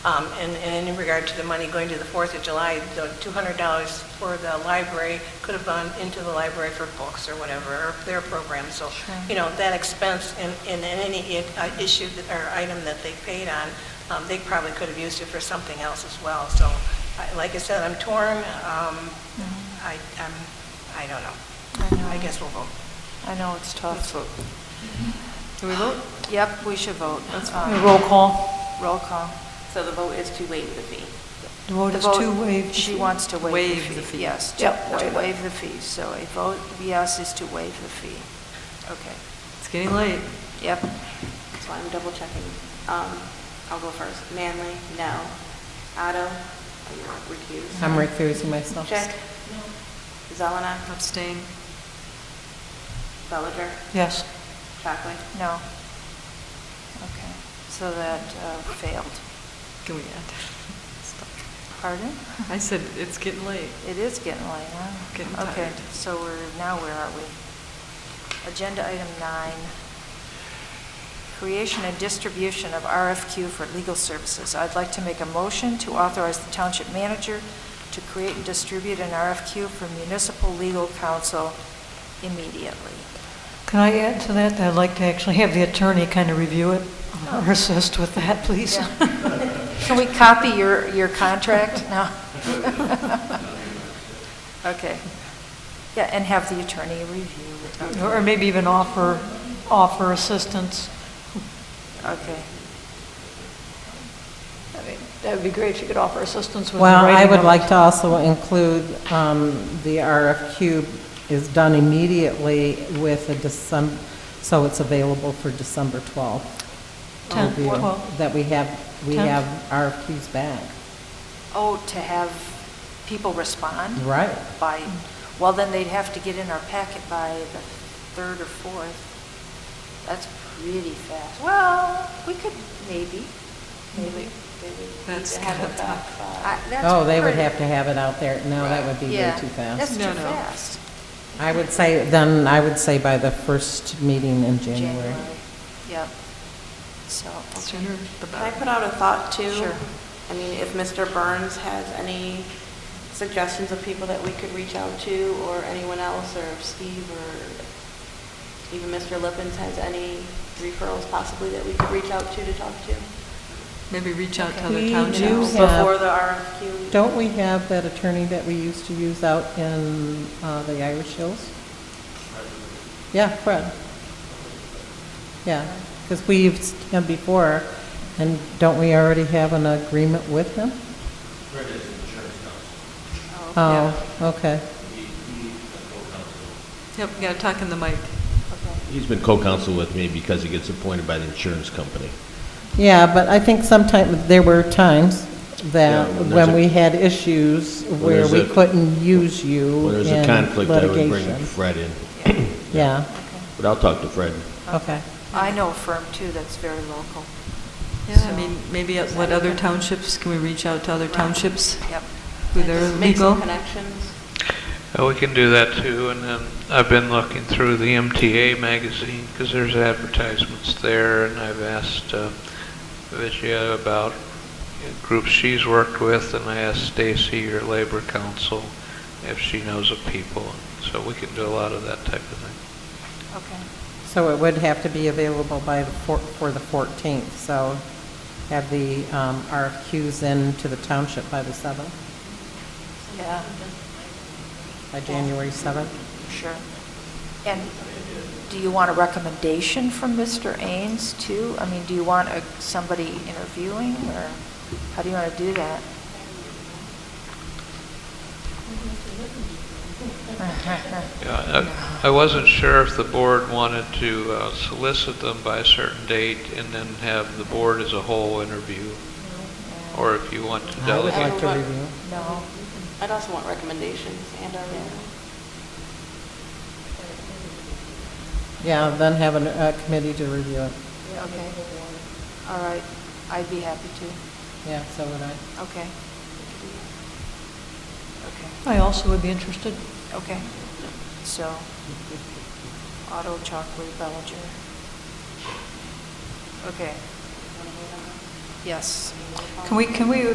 Um, And and in regard to the money going to the Fourth of July, the $200 for the library could have gone into the library for books or whatever, or their program. So, you know, that expense and and any i- uh, issue that- or item that they paid on, um, they probably could have used it for something else as well. So, I- like I said, I'm torn. Um, I, I'm, I don't Mm-hmm. I know. know. I guess we'll vote. I know, it's tough. Do we vote? Yep, we should vote. That's Roll call. Roll call. So the vote is to waive the fee. The vote The is vote- two waived. She wants to waive the fee. Yes, to Yep, to waive it. waive the fee. So a vote yes is to waive the fee. Okay. It's getting late. Yep. So I'm double checking. Um, I'll go first. Manley, no. Otto, recuse. I'm recusing myself. Check. Zelenak, Abstain. Bellinger, Yes. Chockley. No. Okay. So that uh, failed. Can we add? Pardon? I said, it's getting late. It is getting late, huh? Getting Okay, tired. so we're, now where are we? Agenda item nine, creation and distribution of RFQ for legal services. I'd like to make a motion to authorize the township manager to create and distribute an RFQ for municipal legal counsel immediately. Can I add to that? I'd like to actually have the attorney kind of review it or assist with that, please. Can we copy your, your contract now? Okay. Yeah, and have the attorney review it. Okay. Or maybe even offer, offer assistance. Okay. I mean, That would be great if you could offer assistance with the Well, writing. I would of- like to also include, um, the RFQ is done immediately with a December, so it's available for December 12th. Tenth, review, twelfth. That we have, we Tenth. have RFQs back. Oh, to have people respond? Right. By, well, then they'd have to get in our packet by the third or fourth. That's pretty fast. Well, we could, maybe, maybe. That's Have uh, it back by- I- that's Oh, they would pretty- have to have it out there. No, that would be way Yeah, too That's fast. too No, no. fast. I would say, then, I would say by the first meeting in January. Yep. So, Sooner the Can I better. put out a thought too? Sure. I mean, if Mr. Burns has any suggestions of people that we could reach out to, or anyone else, or if Steve, or even Mr. Lippens has any referrals possibly that we could reach out to to talk to? Maybe reach out to other We townships. do have- Before the RFQ. Don't we have that attorney that we used to use out in uh, the Irish Hills? Yeah, Fred. Yeah, because we used him before, and don't we already have an agreement with him? Fred is an insurance counsel. Oh, okay. He, he is a co-counsel. Yep, you gotta talk in the mic. He's been co-counsel with me because he gets appointed by the insurance company. Yeah, but I think sometime, there were times that Yeah, when there's when a- we had issues where there's we a- couldn't use you When in there's a conflict, I would bring litigation. Fred in, Yeah, but I'll talk to Fred. okay. I know a firm too that's very local. Yeah, I So- mean, maybe at what other townships, can we reach out to other townships? Yep. Who they're Just Make legal? some connections. Uh, We can do that too, and then I've been looking through the MTA magazine, because there's advertisements there, and I've asked uh, Vigia about groups she's worked with, and I asked Stacy, your labor council, if she knows of people, so we can do a lot of that type of thing. Okay. So it would have to be available by the, four- for the 14th, so have the um, RFQs in to the township by the 7th, Yeah. by January 7th? Sure. And do you want a recommendation from Mr. Ains, too? I mean, do you want a- somebody interviewing, or how do you want to do that? Yeah, I I wasn't sure if the board wanted to uh, solicit them by a certain date and then have the board as a whole interview, or if you want to I would delegate. like to review. No. I'd also want recommendations and our, Yeah, then have an- a committee to review it. Okay. All right, I'd be happy to. Yeah, so would I. Okay. Okay. I also would be interested. Okay, so, Otto Chalkley Bellinger. Okay. Yes. Can we, can we